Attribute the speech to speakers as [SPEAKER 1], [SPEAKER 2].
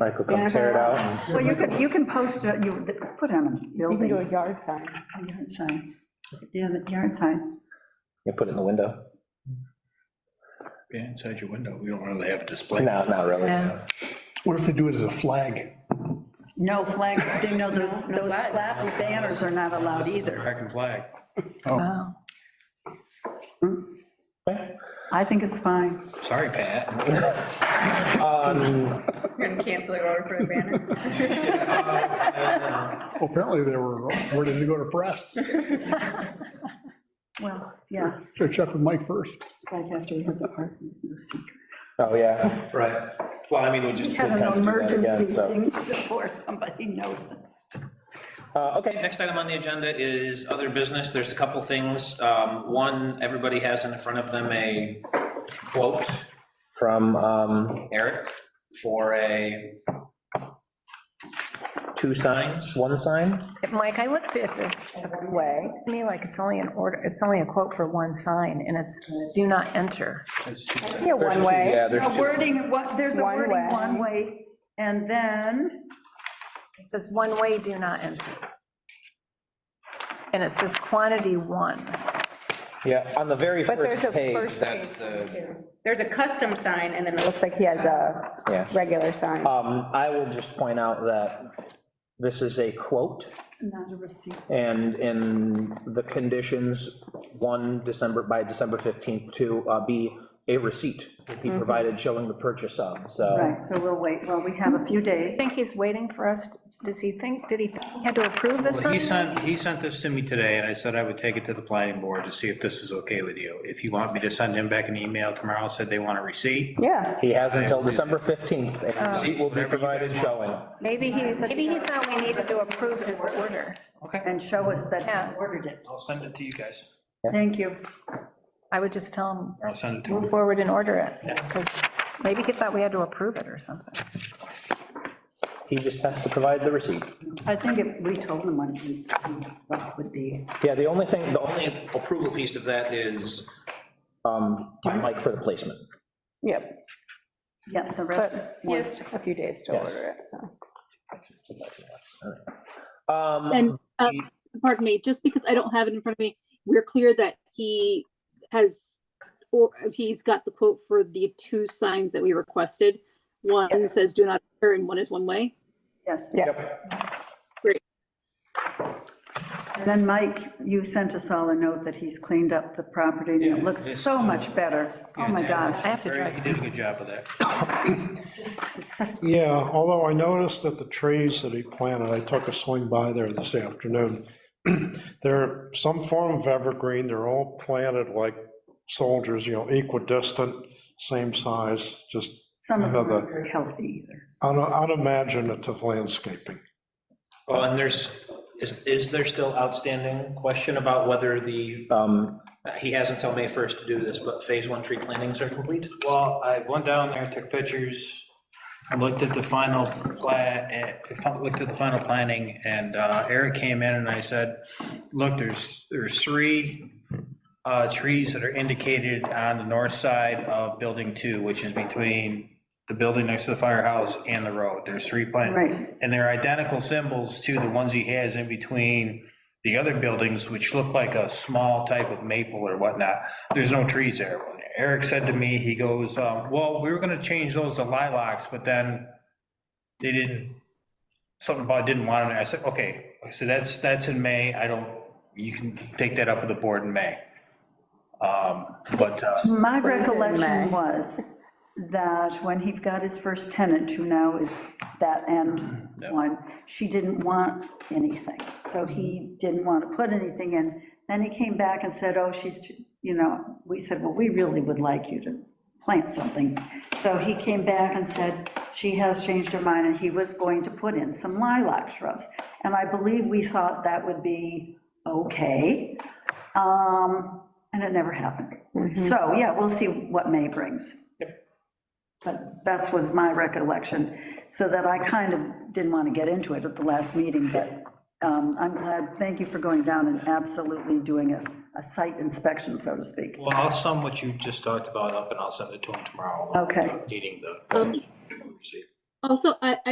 [SPEAKER 1] I could come tear it out. and-
[SPEAKER 2] Well, you can, you can post it, you, put it on a
[SPEAKER 3] You can
[SPEAKER 2] building,
[SPEAKER 3] do a yard sign.
[SPEAKER 2] a yard sign. Yeah, the yard sign.
[SPEAKER 1] You put it in the window?
[SPEAKER 4] Yeah, inside your window, we don't really have a display.
[SPEAKER 1] No, not really.
[SPEAKER 5] Yeah.
[SPEAKER 6] What if they do it as a flag?
[SPEAKER 2] No flags, they know those,
[SPEAKER 5] No, no
[SPEAKER 2] those
[SPEAKER 5] flags.
[SPEAKER 2] flappy banners are not allowed either.
[SPEAKER 4] American flag.
[SPEAKER 5] Wow.
[SPEAKER 2] I think it's fine.
[SPEAKER 4] Sorry, Pat.
[SPEAKER 5] We're gonna cancel the order for the banner.
[SPEAKER 6] Well, Apparently they were ready to go to press.
[SPEAKER 2] Well, yeah,
[SPEAKER 6] Should check with Mike first.
[SPEAKER 2] it's like after we had the park, no secret.
[SPEAKER 1] Oh, yeah.
[SPEAKER 4] Right. Well, I mean, we just.
[SPEAKER 2] Had an
[SPEAKER 1] have to do that again,
[SPEAKER 2] emergency
[SPEAKER 1] so.
[SPEAKER 2] thing before somebody noticed.
[SPEAKER 1] Uh, okay,
[SPEAKER 7] Next item on the agenda is other business. There's a couple things. Um, One, everybody has in front of them a quote,
[SPEAKER 1] from, um,
[SPEAKER 7] Eric, for a,
[SPEAKER 1] two signs, one sign?
[SPEAKER 5] Mike, I looked at this one way. It's to me like it's only an order, it's only a quote for one sign, and it's do not enter.
[SPEAKER 3] Yeah,
[SPEAKER 1] There's
[SPEAKER 3] one
[SPEAKER 1] two-
[SPEAKER 3] way.
[SPEAKER 1] Yeah, there's
[SPEAKER 2] A
[SPEAKER 1] two.
[SPEAKER 2] wording, what, there's a
[SPEAKER 3] One
[SPEAKER 2] wording
[SPEAKER 3] way.
[SPEAKER 2] one way, and then,
[SPEAKER 5] It says one way, do not enter. And it says quantity one.
[SPEAKER 1] Yeah, on the very
[SPEAKER 3] But there's
[SPEAKER 1] first
[SPEAKER 3] a
[SPEAKER 1] page,
[SPEAKER 3] first
[SPEAKER 1] that's
[SPEAKER 3] page.
[SPEAKER 1] the.
[SPEAKER 8] There's a custom sign, and then it
[SPEAKER 3] Looks like he has a
[SPEAKER 1] Yeah.
[SPEAKER 3] regular sign.
[SPEAKER 1] Um, I will just point out that this is a quote,
[SPEAKER 2] not a receipt.
[SPEAKER 1] and in the conditions, one, December, by December 15th, to uh, be a receipt, to be provided showing the purchase of, so.
[SPEAKER 2] Right, so we'll wait, well, we have a few
[SPEAKER 5] I
[SPEAKER 2] days.
[SPEAKER 5] think he's waiting for us, does he think, did he think he had to approve this
[SPEAKER 4] Well, He
[SPEAKER 5] one?
[SPEAKER 4] sent, he sent this to me today, and I said I would take it to the planning board to see if this is okay with you. If you want me to send him back an email tomorrow, said they want a receipt.
[SPEAKER 3] Yeah,
[SPEAKER 1] He has until December 15th, and a receipt will be
[SPEAKER 4] Whatever you guys
[SPEAKER 1] provided showing.
[SPEAKER 5] Maybe he, maybe he thought we needed to approve his order.
[SPEAKER 2] And show us that he's
[SPEAKER 5] Yeah.
[SPEAKER 2] ordered it.
[SPEAKER 4] I'll send it to you guys.
[SPEAKER 2] Thank you.
[SPEAKER 5] I would just tell him,
[SPEAKER 4] I'll send it to
[SPEAKER 5] move
[SPEAKER 4] him.
[SPEAKER 5] forward and order it, because maybe he thought we had to approve it or something.
[SPEAKER 1] He just has to provide the receipt.
[SPEAKER 2] I think if we told them what we- what would be,
[SPEAKER 1] Yeah, the only thing, the only approval piece of that is, um, Mike for the placement.
[SPEAKER 3] yep,
[SPEAKER 2] yeah, the
[SPEAKER 3] but
[SPEAKER 2] rest,
[SPEAKER 3] just a few days to
[SPEAKER 1] Yes.
[SPEAKER 3] order it, so.
[SPEAKER 1] Um,
[SPEAKER 9] And, uh, pardon me, just because I don't have it in front of me, we're clear that he has, or he's got the quote for the two signs that we requested. One
[SPEAKER 3] Yes.
[SPEAKER 9] says do not enter and one is one way.
[SPEAKER 2] yes.
[SPEAKER 3] Yes,
[SPEAKER 2] Then, Mike, you sent us all a note that he's cleaned up the property, and it looks so much better. Oh, my gosh,
[SPEAKER 5] I have to drive.
[SPEAKER 4] He did a good job of that.
[SPEAKER 6] Yeah, although I noticed that the trees that he planted, I took a swing by there this afternoon. They're some form of evergreen, they're all planted like soldiers, you know, equidistant, same size, just
[SPEAKER 2] some of them
[SPEAKER 6] Another.
[SPEAKER 2] aren't very healthy either.
[SPEAKER 6] un- unimaginative landscaping.
[SPEAKER 7] well, and there's, is, is there still outstanding question about whether the,
[SPEAKER 1] um,
[SPEAKER 7] he has until May 1st to do this, but phase one tree plantings are complete?
[SPEAKER 4] Well, I went down there, took pictures, I looked at the final plat, eh, looked at the final planning, and uh, Eric came in and I said, look, there's, there's three uh, trees that are indicated on the north side of building two, which is between the building next to the firehouse and the road. There's three plants.
[SPEAKER 2] Right.
[SPEAKER 4] And they're identical symbols to the ones he has in between the other buildings, which look like a small type of maple or whatnot. There's no trees there. When Eric said to me, he goes, um, well, we were gonna change those to lilacs, but then they didn't, something about didn't want it. I said, okay, so that's, that's in May. I don't, you can take that up with the board in May. Um, But, uh,
[SPEAKER 2] My
[SPEAKER 3] May.
[SPEAKER 2] recollection was that when he got his first tenant, who now is that end one, she didn't want anything, so he didn't want to put anything in. Then he came back and said, oh, she's, too-" you know, we said, well, we really would like you to plant something. So he came back and said, she has changed her mind, and he was going to put in some lilac shrubs. And I believe we thought that would be okay, um, and it never happened. So, yeah, we'll see what May brings. But that was my recollection, so that I kind of didn't want to get into it at the last meeting, but um, I'm glad, thank you for going down and absolutely doing a, a site inspection, so to speak.
[SPEAKER 4] well, I'll sum what you just talked
[SPEAKER 2] Oh.
[SPEAKER 4] about up and I'll send it to him tomorrow.
[SPEAKER 2] Okay.
[SPEAKER 4] Needing the.
[SPEAKER 9] Um, Also, I,